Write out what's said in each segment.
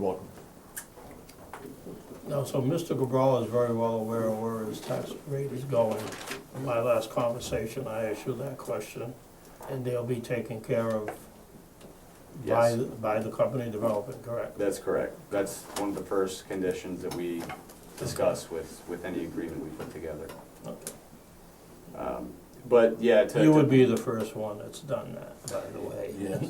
Welcome. No, so Mr. Cabral is very well aware of where his tax rate is going. In my last conversation, I asked you that question, and they'll be taken care of by, Yes, by the company developing, correct? That's correct. That's one of the first conditions that we discuss with, with any agreement we put together. Okay. Um, But, yeah, to. You to- would be the first one that's done that, by the way. yes.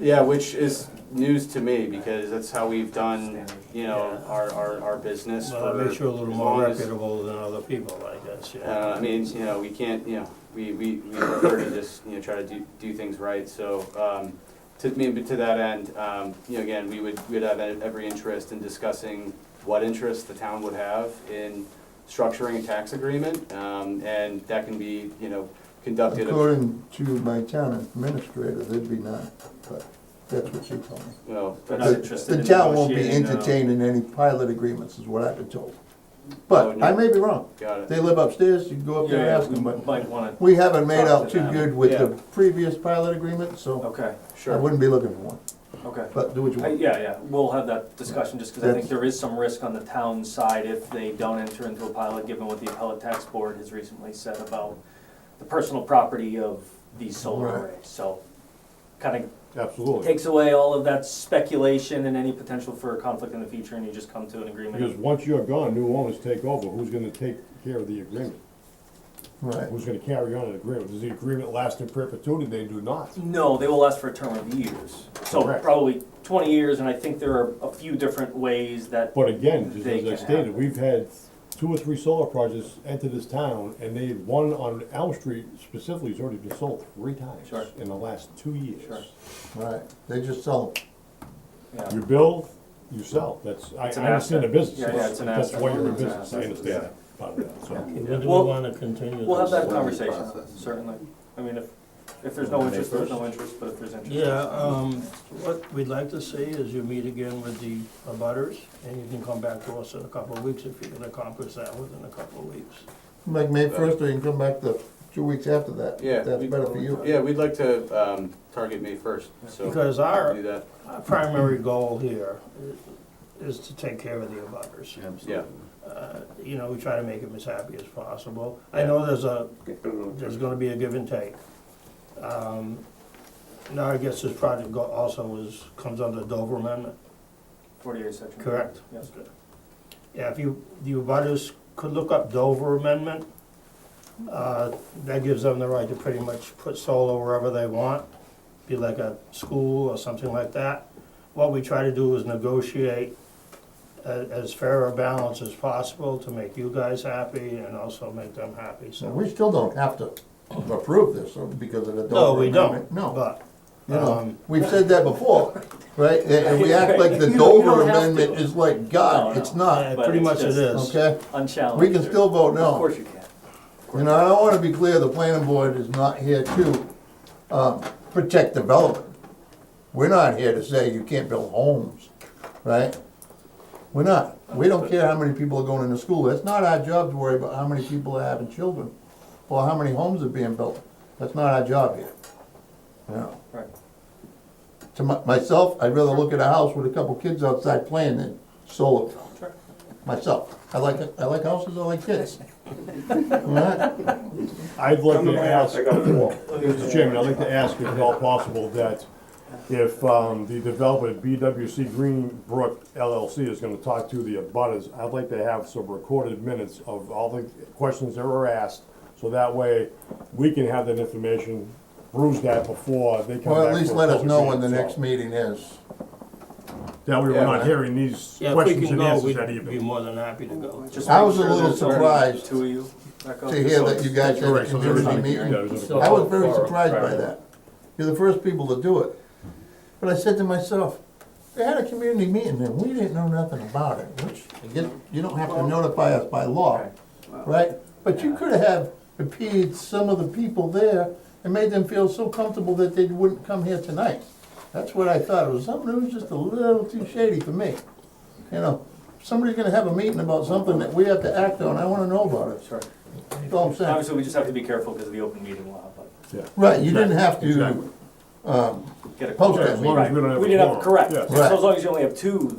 Yeah, which is news to me, because that's how we've done, you know, Yeah. our, our, our business for. Well, it makes you a little as more long as- reputable than other people, I guess, yeah. Uh, I mean, you know, we can't, you know, we, we, we prefer to just, you know, try to do, do things right, so, um, to, I mean, to that end, um, you know, again, we would, we'd have e, every interest in discussing what interest the town would have in structuring a tax agreement, um, and that can be, you know, conducted. According to my town administrator, there'd be none, but that's what she told me. Well, The they're not interested in the town won't be negotiating, uh, no. entertaining any pilot agreements, is what I've been told. Oh, But I may be wrong. Got They it, live upstairs, you can go up there and Yeah, ask we them, but might wanna, we haven't made Talk out to too them. good with the Yeah. previous pilot agreement, so okay, I Oh, sure, wouldn't be looking for one. okay. But do what you I- want. Yeah, yeah, we'll have that discussion, just because I think That's- there is some risk on the town side if they don't enter into a pilot, given what the appellate tax board has recently said about the personal property of these solar Right. arrays, so kind of Absolutely. takes away all of that speculation and any potential for conflict in the future, and you just come to an Because agreement. once you're gone, new owners take over. Who's gonna take care of the agreement? Right. Who's gonna carry on an agreement? Does the agreement last in perpetuity? They do not. No, they will last for a term of years, so Correct. probably twenty years, and I think there are a few different ways that But again, just They as I can stated, have- we've had two or three solar projects enter this town, and they, one on Elm Street specifically has already been sold three times Sure. in the last two Sure. years. Right, they just sell them. Yeah. You build, you sell. That's, I I It's an understand the asset. business. Yeah, yeah, it's an That's asset. why you're in It's an business. I asset. understand that part of that, so. Yeah. When do we Well, wanna continue We'll have this? that conversation, certainly. I mean, if, if there's no interest, there's no interest, but if there's interest. Yeah, um, what we'd like to see is you meet again with the abutters, and you can come back to us in a couple of weeks if you can accomplish that within a couple of weeks. Like May first, or you can come back the two weeks after that. Uh, Yeah, That's we- better for you. yeah, we'd like to, um, target May first, so. Because our, Do that, Our primary goal here i- is to take care of the abutters. yeah, Uh, You know, we try to make them as happy as possible. I know there's a, there's gonna be a give and take. Um, Now, I guess this project go- also is, comes under Dover Amendment, Forty-eight section. correct? Yes. Yeah, if you, the abutters could look up Dover Amendment, uh, that gives them the right to pretty much put solar wherever they want, be like a school or something like that. What we try to do is negotiate a- as fair a balance as possible to make you guys happy and also make them happy, So so. we still don't have to approve this uh, because of the No, Dover we Amendment. don't, No. but, You know, Um, we've said that before, right? And and we act like the You don't- you Dover don't have Amendment to. is like No, God, no. it's not, yeah, uh, pretty it's much it just- is. okay? Unchallenged. We can still vote Of no. course you can. You know, I wanna be clear, the planning board is not here to, um, protect development. We're not here to say you can't build homes, right? We're not. We don't care how many people are going into school. That's not our job to worry about how many people are having children or how many homes are being built. That's not our job here. You know? Right. To my- myself, I'd rather look at a house with a couple kids outside playing than solo. Myself, I like, I like houses, I like kids. Alright? I'd like to ask, Mr. Chairman, I'd like to ask if at all possible that if um, the developer BWC Greenbrook LLC is gonna talk to the abutters, I'd like to have some recorded minutes of all the questions that were asked, so that way we can have that information, bruise that before they come back. Or at least for a let us public know when the so next meeting is. That way we're not Yeah. hearing these Yeah, if we questions can and go, answers that we'd be evening. more than happy to go. Just I make was a sure little there's already surprised Two of you. back up. To hear that you guys had a Correct, so there is community a- meeting. yeah, there's a- I was very surprised by that. You're the first people to do it. But I said to myself, they had a community meeting and we didn't know nothing about it, which, again, you don't have to notify us by law, right? But you could have appeased some of the people there and made them feel so comfortable that they wouldn't come here tonight. That's what I thought. It was something that was just a little too shady for me. You know, somebody's gonna have a meeting about something that we have to act on. I wanna know about it. Sure. That's all I'm saying. Obviously, we just have to be careful because of the open meeting law, but Yeah. Right, you didn't have Exactly. to get a. Post it. As long as we don't have a We didn't have, quorum. correct, Yes. so as long as you only have two,